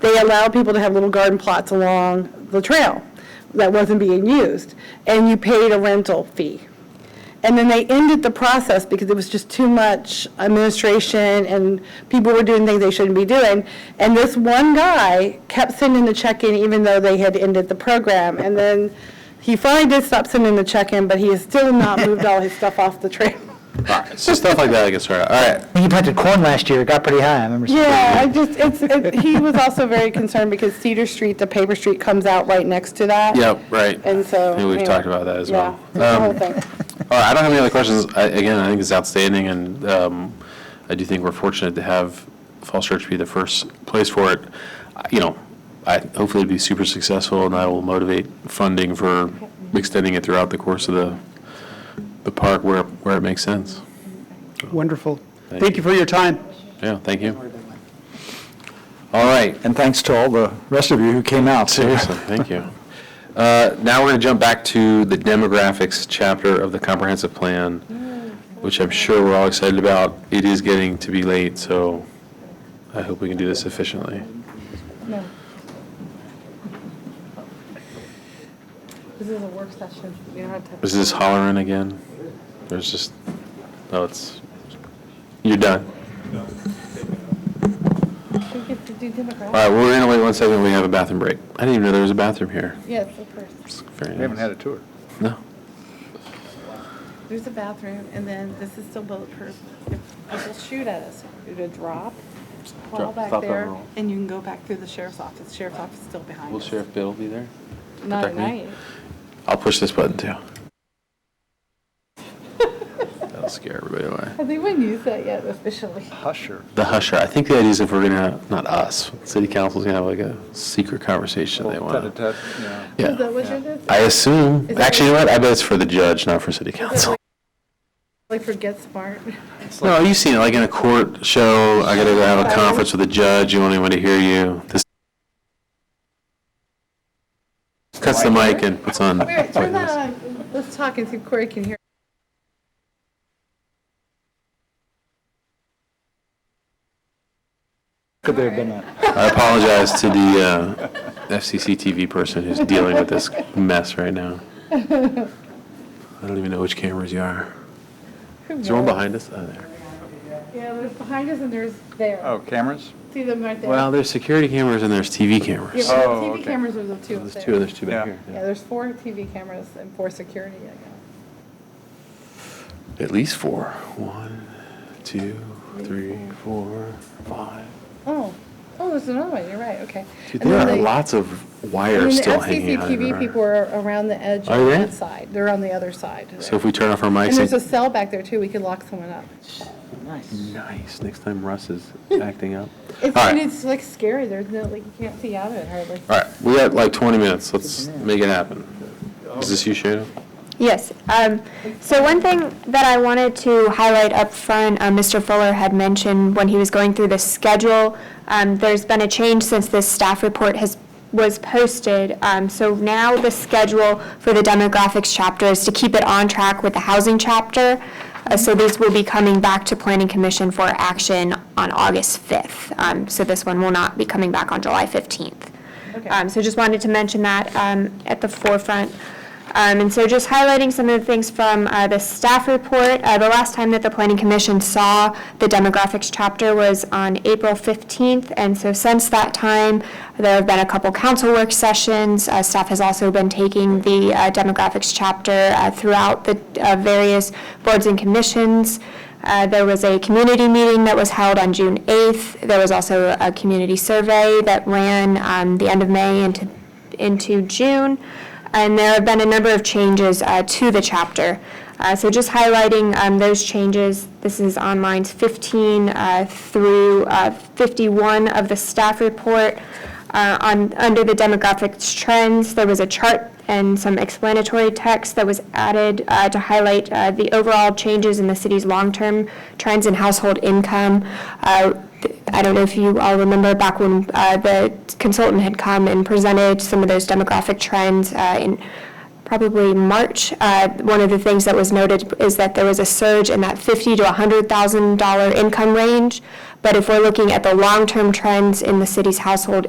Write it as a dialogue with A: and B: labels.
A: they allowed people to have little garden plots along the trail that wasn't being used, and you paid a rental fee. And then they ended the process because it was just too much administration and people were doing things they shouldn't be doing. And this one guy kept sending the check in even though they had ended the program. And then he finally did stop sending the check in, but he has still not moved all his stuff off the trail.
B: So stuff like that, I guess, all right.
C: When you planted corn last year, it got pretty high, I remember. seeing
A: Yeah, I just, it's, it- he was also very concerned because Cedar Street, the paper street comes out right next to that.
B: Yep, right.
A: And so.
B: I think we've
A: anyway,
B: talked about that as well.
A: Yeah, the whole
B: Um,
A: thing.
B: All right, I don't have any other questions. I- Again, I think it's outstanding, and um, I do think we're fortunate to have Falls Church be the first place for it. I- You know, I, hopefully it'll be super successful, and that will motivate funding for extending it throughout the course of the, the park where, where it makes sense.
D: Wonderful.
B: Thank
D: Thank you for your time.
B: Yeah, thank you. All right,
C: And thanks to all the rest of you who came out, too.
B: seriously, thank you. Uh, Now we're going to jump back to the demographics chapter of the comprehensive plan, which I'm sure we're all excited about. It is getting to be late, so I hope we can do this efficiently.
E: This is a work session. You don't have to.
B: Is this hollering again? There's just, no, it's, you're done.
E: We get to do demographics.
B: All right, we're going to wait one second, we have a bathroom break. I didn't even know there was a bathroom here.
E: Yeah, it's the first.
B: We
F: a tour.
B: No.
E: There's a bathroom, and then this is still bulletproof. If people shoot at us, you do a drop, fall
B: Drop,
E: back
B: stop and
E: there,
B: roll.
E: and you can go back through the sheriff's office. Sheriff's office is still behind
B: Will
E: us.
B: Sheriff Biddle be there?
E: Not at
B: protect me? Oh,
E: night.
B: I'll push this button too. That'll scare everybody away.
E: Have they even used that yet officially?
F: Husher.
B: The husher, I think the idea is if we're gonna, not us, city council's gonna have like a secret conversation they want. to.
F: Tete-a-tete, yeah.
B: Yeah.
E: Is that what you're doing?
B: I assume,
E: Is that
B: actually, you know what, I bet it's for the judge, not for city council.
E: Like for Get Smart?
B: No, you've seen it, like in a court show, I gotta go have a conference with the judge, you want anyone to hear you, this. Cuts the mic and puts on.
E: Wait, turn that on. Let's talk and see if Corey can hear.
C: Could there have been a...
B: I apologize to the uh, FCC TV person who's dealing with this mess right now. I don't even know which cameras you are. Is there one behind us? Oh, there.
E: Yeah, there's behind us and there's there.
F: Oh, cameras?
E: See them right there?
B: Well, there's security cameras and there's TV
E: Yeah,
B: cameras.
E: but
F: Oh,
E: the TV
F: okay.
E: cameras are the two up
B: There's
E: there.
B: two, and there's two back
F: Yeah.
B: here.
E: Yeah, there's four TV cameras and four security, I guess.
B: yeah. At least four. One, two, three, four, five.
E: Oh, oh, there's another one, you're right, okay.
B: Dude,
E: And
B: there
E: then
B: are
E: they-
B: lots of
E: and then
B: wires still hanging out.
E: The FCCTV
B: everywhere.
E: people are around the edge
B: Are
E: on
B: they?
E: that side, they're on the other side.
B: So
E: there.
B: if we turn off our mics.
E: And there's a
B: and-
E: cell back there too, we could lock someone up.
B: Nice. Next time Russ is acting up.
E: It's,
B: All right.
E: and it's like scary, there's no, like, you can't see out of it hardly.
B: All right, we got like 20 minutes. Let's make it happen. Is this you, Shayna?
G: Yes. um, So one thing that I wanted to highlight up front, uh, Mr. Fuller had mentioned when he was going through the schedule, um, there's been a change since this staff report has, was posted. Um, So now the schedule for the demographics chapter is to keep it on track with the housing chapter. Uh, So these will be coming back to Planning Commission for action on August 5th. Um, So this one will not be coming back on July 15th.
E: Okay.
G: Um, So just wanted to mention that um, at the forefront. Um, And so just highlighting some of the things from uh, the staff report, uh, the last time that the Planning Commission saw the demographics chapter was on April 15th, and so since that time, there have been a couple council work sessions. Uh, Staff has also been taking the uh, demographics chapter uh, throughout the uh, various boards and commissions. Uh, There was a community meeting that was held on June 8th. There was also a community survey that ran um, the end of May into, into June. And there have been a number of changes uh, to the chapter. Uh, So just highlighting um, those changes, this is on lines 15 uh, through uh, 51 of the staff report. Uh, On, under the demographics trends, there was a chart and some explanatory text that was added uh, to highlight uh, the overall changes in the city's long-term trends in household income. Uh, th- I don't know if you all remember back when uh, the consultant had come and presented some of those demographic trends uh, in probably March. Uh, One of the things that was noted is that there was a surge in that $50,000 to $100,000 income range. But if we're looking at the long-term trends in the city's household